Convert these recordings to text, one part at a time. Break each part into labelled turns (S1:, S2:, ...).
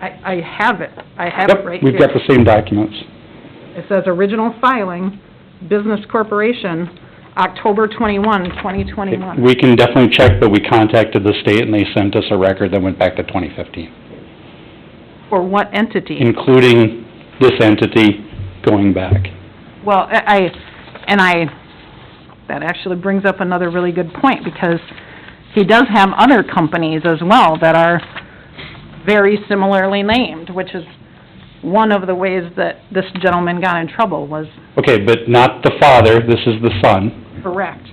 S1: I, I have it, I have
S2: Yep,
S1: it right here.
S2: we've got the same documents.
S1: It says original filing, Business Corporation, October 21, 2021.
S2: We can definitely check, but we contacted the state and they sent us a record that went back to 2015,
S1: For what entity?
S2: including this entity going back. Mm.
S1: Well, I, I- and I, that actually brings up another really good point, because he does have other companies as well that are very similarly named, which is one of the ways that this gentleman got in trouble, was
S2: Okay, but not the father, this is the son.
S1: correct.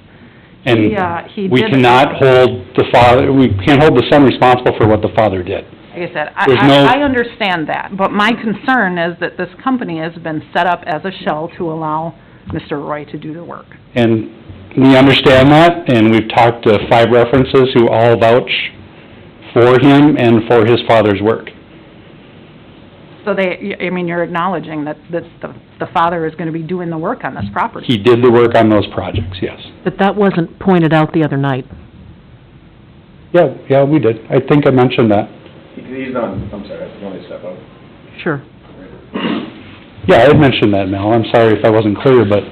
S2: And
S1: Yeah, he
S2: we
S1: did-
S2: cannot hold the father, we can't hold the son responsible for what the father did.
S1: Like I said, I,
S2: There's no-
S1: I- I understand that, but my concern is that this company has been set up as a shell to allow Mr. Roy to do the work.
S2: And we understand that, and we've talked to five references who all vouch for him and for his father's work.
S1: So they, I mean, you're acknowledging that, that the, the father is gonna be doing the work on this property.
S2: He did the work on those projects, yes.
S3: But that wasn't pointed out the other night.
S2: Yeah, yeah, we did. I think I mentioned that.
S4: He- He's not, I'm sorry, I want to step up.
S3: Sure.
S2: Yeah, I had mentioned that, Mel. I'm sorry if I wasn't clear, but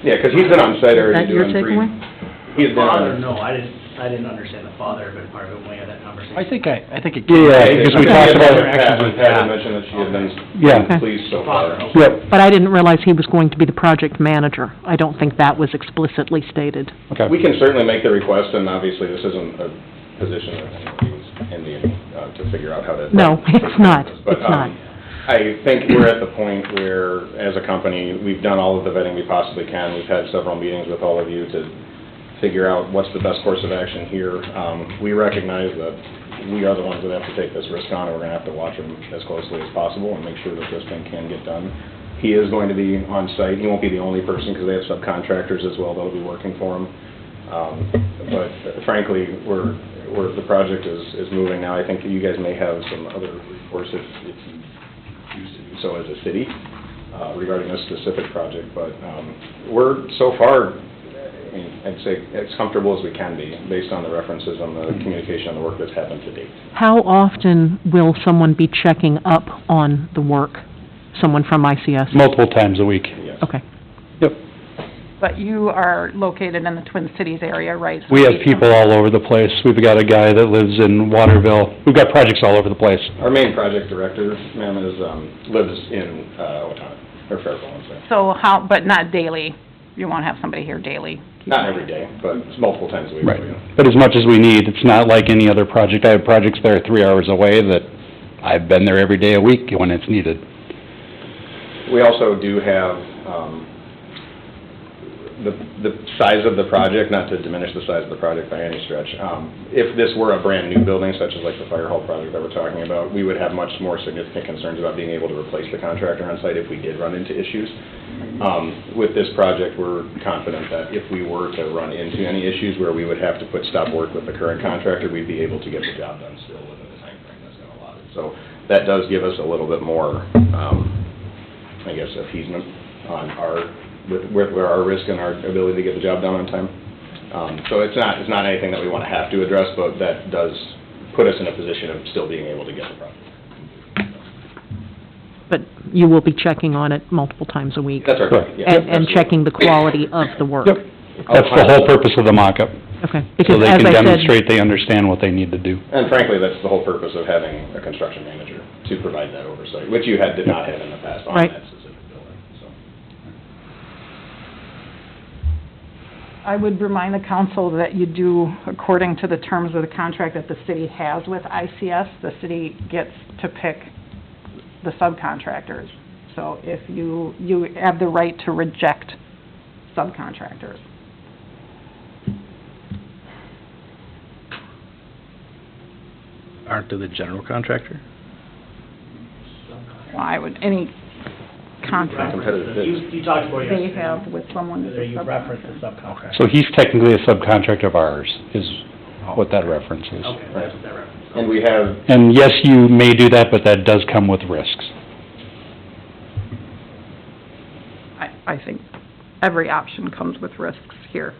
S4: Yeah, because he's been on site
S3: Is that
S4: already
S3: your
S4: doing three.
S3: takeaway?
S4: He's been on.
S5: Father, no, I didn't, I didn't understand the father, but part of it, we had that conversation.
S6: I think I, I think it.
S2: Yeah, because we talked about-
S4: Pat,
S6: Interactions with
S4: Pat had
S6: Pat.
S4: mentioned that she had been
S2: yeah,
S4: pleased so
S5: Father,
S4: far.
S5: okay.
S2: yep,
S3: But I didn't realize he was going to be the project manager. I don't think that was explicitly stated.
S2: okay.
S4: We can certainly make the request, and obviously, this isn't a position that anyone's in the, uh, to figure out how to...
S3: No, it's not.
S4: But,
S3: It's not.
S4: um, I think we're at the point where, as a company, we've done all of the vetting we possibly can. We've had several meetings with all of you to figure out what's the best course of action here. Um, We recognize that we are the ones that have to take this risk on, and we're going to have to watch him as closely as possible and make sure that this thing can get done. He is going to be on site. He won't be the only person, because they have subcontractors as well that'll be working for him. Um, But frankly, we're, we're, the project is, is moving now. I think you guys may have some other recourse if, if you choose to do so as a city uh, regarding this specific project. But um, we're so far, I mean, I'd say as comfortable as we can be based on the references on the communication and the work that's happened to date.
S3: How often will someone be checking up on the work? Someone from ICS?
S2: Multiple times a week.
S4: Yes.
S3: Okay.
S2: Yep.
S1: But you are located in the Twin Cities area, right?
S2: We have people all over the place. We've got a guy that lives in Waterville. We've got projects all over the place.
S4: Our main project director, ma'am, is, um, lives in uh, Owatonna, or Fairfield, I'm sorry.
S1: So how, but not daily, you won't have somebody here daily.
S4: Not every day, but multiple times a week.
S2: Right.
S4: you know.
S2: But as much as we need, it's not like any other project. I have projects that are three hours away that I've been there every day a week when it's needed.
S4: We also do have, um, the, the size of the project, not to diminish the size of the project by any stretch. Um, If this were a brand-new building, such as like the fire hall project that we're talking about, we would have much more significant concerns about being able to replace the contractor on site if we did run into issues. Um, With this project, we're confident that if we were to run into any issues where we would have to put stop work with the current contractor, we'd be able to get the job done still within the timeframe that's been allotted. So that does give us a little bit more, um, I guess, appeasement on our, with, with where our risk and our ability to get the job done on time. Um, so it's not, it's not anything that we want to have to address, but that does put us in a position of still being able to get the project.
S3: But you will be checking on it multiple times a week?
S4: That's our,
S2: Correct.
S3: And,
S4: yeah.
S3: and
S4: absolutely.
S3: checking the quality of the work?
S2: Yep. That's the whole purpose of the mock-up,
S3: Okay.
S2: so
S3: Because
S2: they
S3: as
S2: can
S3: I said,
S2: demonstrate they understand what they need to do.
S4: And frankly, that's the whole purpose of having a construction manager, to provide that oversight, which you had, did not have in the past on
S3: Right.
S4: that specific building, so.
S1: I would remind the council that you do, according to the terms of the contract that the city has with ICS, the city gets to pick the subcontractors. So if you, you have the right to reject subcontractors.
S6: Aren't they the general contractor?
S1: Well, I would, any contract
S4: competitive bid.
S5: You, you talked about
S1: they
S5: yesterday.
S1: have with someone that's
S5: Whether
S1: a
S5: you reference the
S1: subcontractor.
S5: subcontract.
S2: So he's technically a subcontractor of ours, is what that reference is.
S5: Okay, that's what that reference.
S4: And we have,
S2: And yes, you may do that, but that does come with risks.
S1: I, I think every option comes with risks here.